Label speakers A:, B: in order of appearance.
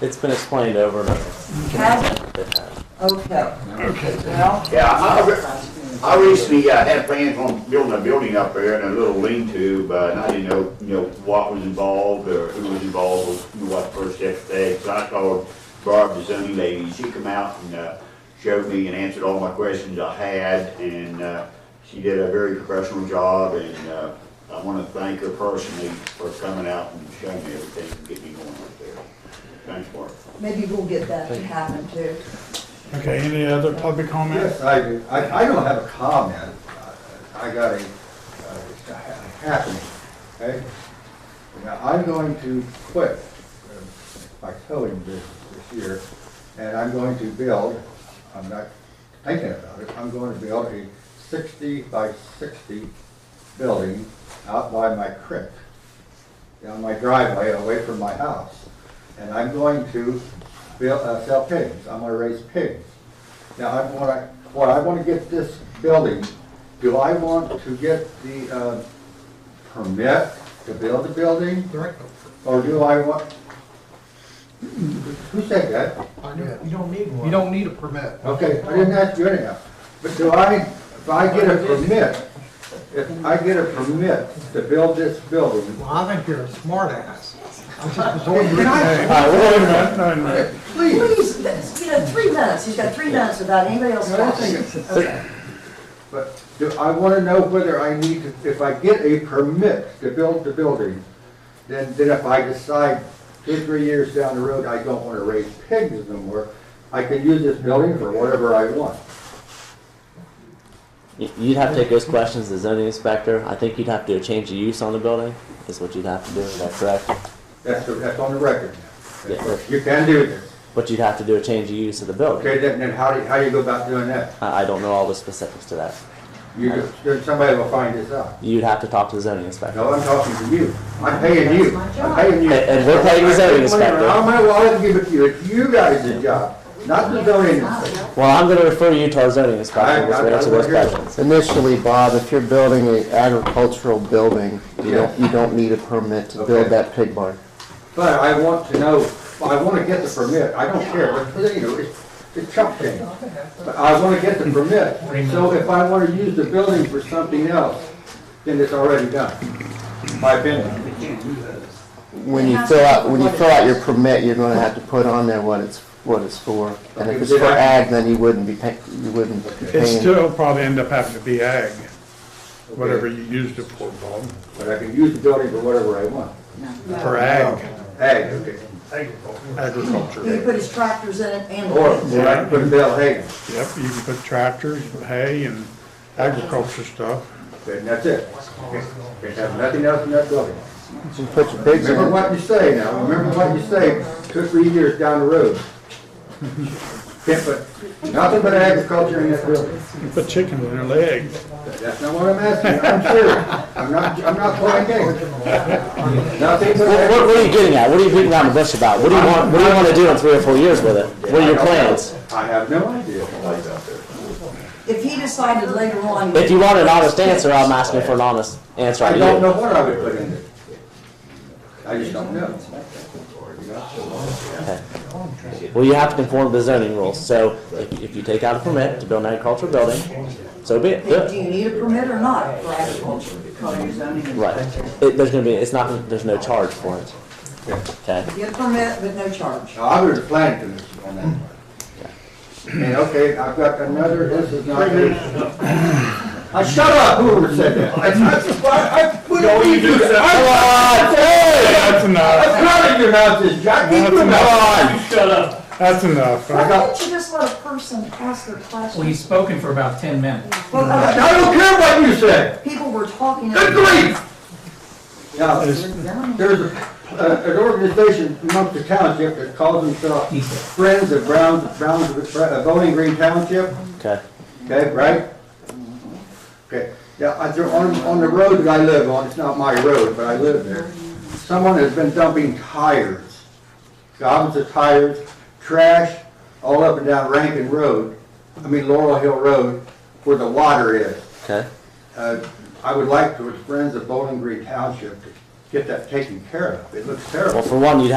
A: It's been explained over and over.
B: Has it?
A: It has.
B: Okay,
C: Okay.
B: well.
D: Yeah, I, I re- I recently uh, had plans on building a building up there and a little lean-to, but I didn't know, you know, what was involved or who was involved, who what first steps they. So I called Barb, the zoning lady. She come out and uh, showed me and answered all my questions I had, and uh, she did a very professional job, and uh, I want to thank her personally for coming out and showing me everything and getting me going up there. Thanks, Barb.
B: Maybe we'll get that to happen too.
E: Okay, any other public comment?
F: Yes, I do. I, I don't have a comment. I I got a, uh, a happening, okay? Now, I'm going to quit uh, my towing business this year, and I'm going to build, I'm not thinking about it, I'm going to build a sixty by sixty building out by my creek, down my driveway, away from my house. And I'm going to build, uh, sell pigs. I'm gonna raise pigs. Now, I want to, what I want to get this building, do I want to get the uh, permit to build the building? Or do I want, who said that?
G: I know, you don't need one. You don't need a permit.
F: Okay, I didn't ask you anyhow. But do I, if I get a permit, if I get a permit to build this building,
G: Well, I think you're a smartass. I'm just resorting to
F: Can I-
G: that.
E: All right, wait a minute, no, no.
F: please,
B: Please, that's- you know, three minutes, he's got three minutes without anybody else
F: No, I
B: talking.
F: think
B: Okay.
F: But do I want to know whether I need to, if I get a permit to build the building, then, then if I decide two, three years down the road, I don't want to raise pigs no more, I can use this building for whatever I want.
A: Y- You'd have to take those questions to the zoning inspector. I think you'd have to change the use on the building, is what you'd have to do, is that correct?
F: That's, the- that's on the record.
A: Yeah.
F: You can do this.
A: But you'd have to do a change of use of the building.
F: Okay, then, then how do, how do you go about doing that?
A: I, I don't know all the specifics to that.
F: You, just- then somebody will find this out.
A: You'd have to talk to the zoning inspector.
F: No, I'm talking to you. I'm paying you. I'm paying you.
A: And- and we're paying the zoning inspector.
F: Out of my wallet and give it to you. It's you guys' job, not the zoning inspector.
A: Well, I'm gonna refer you to our zoning inspector,
F: I-
A: to
F: I-
A: answer
F: I-
A: those
F: I hear you.
A: questions.
H: Initially, Bob, if you're building an agricultural building, you don't, you don't need a permit to
F: Okay.
H: build that pig barn.
F: But I want to know, I want to get the permit, I don't care, but, you know, it's, it's chump change. But I want to get the permit, so if I want to use the building for something else, then it's already done. My opinion.
H: When you fill out, when you fill out your permit, you're gonna have to put on there what it's, what it's for. And if it's for ag, then you wouldn't be paying, you wouldn't be
E: It
H: paying.
E: still probably end up having to be ag, whatever you used it for, Bob,
F: But I can use the building for whatever I want.
E: for ag,
F: Hey, okay.
B: He can
E: agriculture.
B: put his tractors in it and.
F: Or, or I can put a bell hay,
E: Yep, you can put tractors, hay, and agriculture stuff.
F: and that's it. Can't have nothing else in that building.
H: You put your pigs in
F: Remember
H: it.
F: what you say now, remember what you say two, three years down the road. Can't put, nothing but agriculture in that building.
E: You put chickens in their legs.
F: That's not what I'm asking, I'm serious. I'm not, I'm not playing games. Nothing but.
A: What, what- what are you getting at? What are you beating around the bush about? What do you want, what do you wanna do in three or four years with it? What are your plans?
F: I have no idea.
B: If he decided later on.
A: If you want an honest answer, I'm asking for an honest answer
F: I
A: out
F: don't
A: of you.
F: know what I would put in it. I just don't know.
A: Well, you have to conform to the zoning rules, so if, if you take out a permit to build an agricultural building, so be it, do
B: Do
A: it.
B: you need a permit or not for agriculture, color zoning?
A: Right. It, there's gonna be, it's not, there's no charge for it. Okay?
B: Get a permit with no charge.
F: Now, I would have planned commission on that part. And okay, I've got another, this is not. I shut up, whoever said that. I, I, I wouldn't leave you. I'm
E: That's enough,
F: proud of your houses, Jack, keep your mouth on.
E: that's enough.
B: Why
E: I
B: can't you just let a person ask their question?
I: Well, he's spoken for about 10 minutes.
B: Well,
F: I
B: uh,
F: don't care what you say.
B: People were talking.
F: Good grief! Now,
B: Down.
F: There's a- a- an organization amongst the township that calls themselves Friends of Browns, Browns, uh, Bowling Green Township,
A: Okay.
F: okay, right? Okay, yeah, I- they're on, on the road that I live on, it's not my road, but I live there, someone has been dumping tires, gobs of tires, trash, all up and down Rankin Road, I mean Laurel Hill Road, where the water is.
A: Okay.
F: Uh, I would like to, with Friends of Bowling Green Township, to get that taken care of. It looks terrible.
A: Well, for one, you'd have